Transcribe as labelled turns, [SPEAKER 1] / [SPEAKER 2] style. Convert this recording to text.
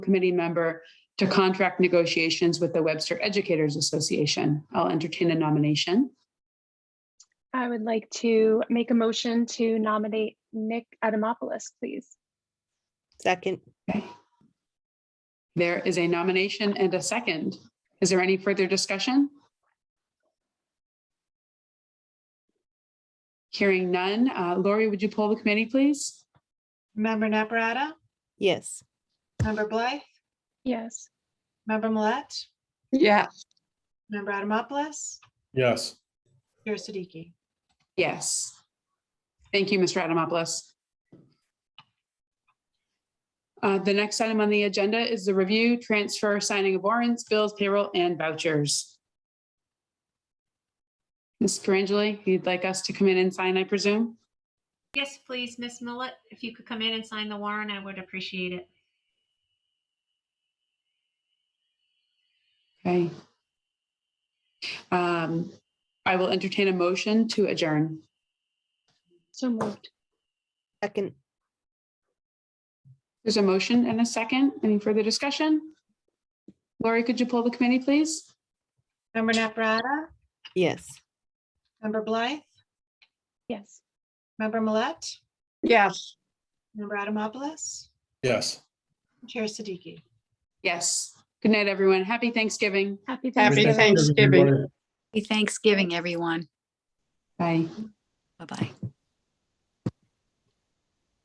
[SPEAKER 1] committee member to contract negotiations with the Webster Educators Association. I'll entertain a nomination.
[SPEAKER 2] I would like to make a motion to nominate Nick Adamopoulos, please.
[SPEAKER 3] Second,
[SPEAKER 1] There is a nomination and a second. Is there any further discussion? Hearing none. Uh, Lori, would you pull the committee, please?
[SPEAKER 4] Member Naprata,
[SPEAKER 3] yes.
[SPEAKER 4] member Blythe,
[SPEAKER 2] Yes,
[SPEAKER 4] member Millet,
[SPEAKER 5] Yeah,
[SPEAKER 4] member Adamopoulos,
[SPEAKER 6] Yes,
[SPEAKER 4] Chair Siddiqui.
[SPEAKER 1] Yes. Thank you, Mr. Adamopoulos. Uh, The next item on the agenda is the review, transfer, signing of warrants, bills, payroll, and vouchers. Ms. Perangeli, you'd like us to come in and sign, I presume?
[SPEAKER 7] Yes, please, Miss Millet, if you could come in and sign the warrant, I would appreciate it.
[SPEAKER 1] Okay. Um, I will entertain a motion to adjourn.
[SPEAKER 2] so moved.
[SPEAKER 3] Second,
[SPEAKER 1] There's a motion and a second. Any further discussion? Lori, could you pull the committee, please?
[SPEAKER 4] Member Naprata,
[SPEAKER 3] yes.
[SPEAKER 4] member Blythe,
[SPEAKER 2] Yes.
[SPEAKER 4] member Millet,
[SPEAKER 5] yes.
[SPEAKER 4] member Adamopoulos,
[SPEAKER 6] yes.
[SPEAKER 4] Chair Siddiqui.
[SPEAKER 1] Yes. Good night, everyone. Happy Thanksgiving.
[SPEAKER 2] Happy
[SPEAKER 5] Happy
[SPEAKER 2] Thanksgiving.
[SPEAKER 5] Thanksgiving.
[SPEAKER 6] Everybody.
[SPEAKER 8] Happy Thanksgiving, everyone.
[SPEAKER 1] Bye.
[SPEAKER 8] Bye-bye.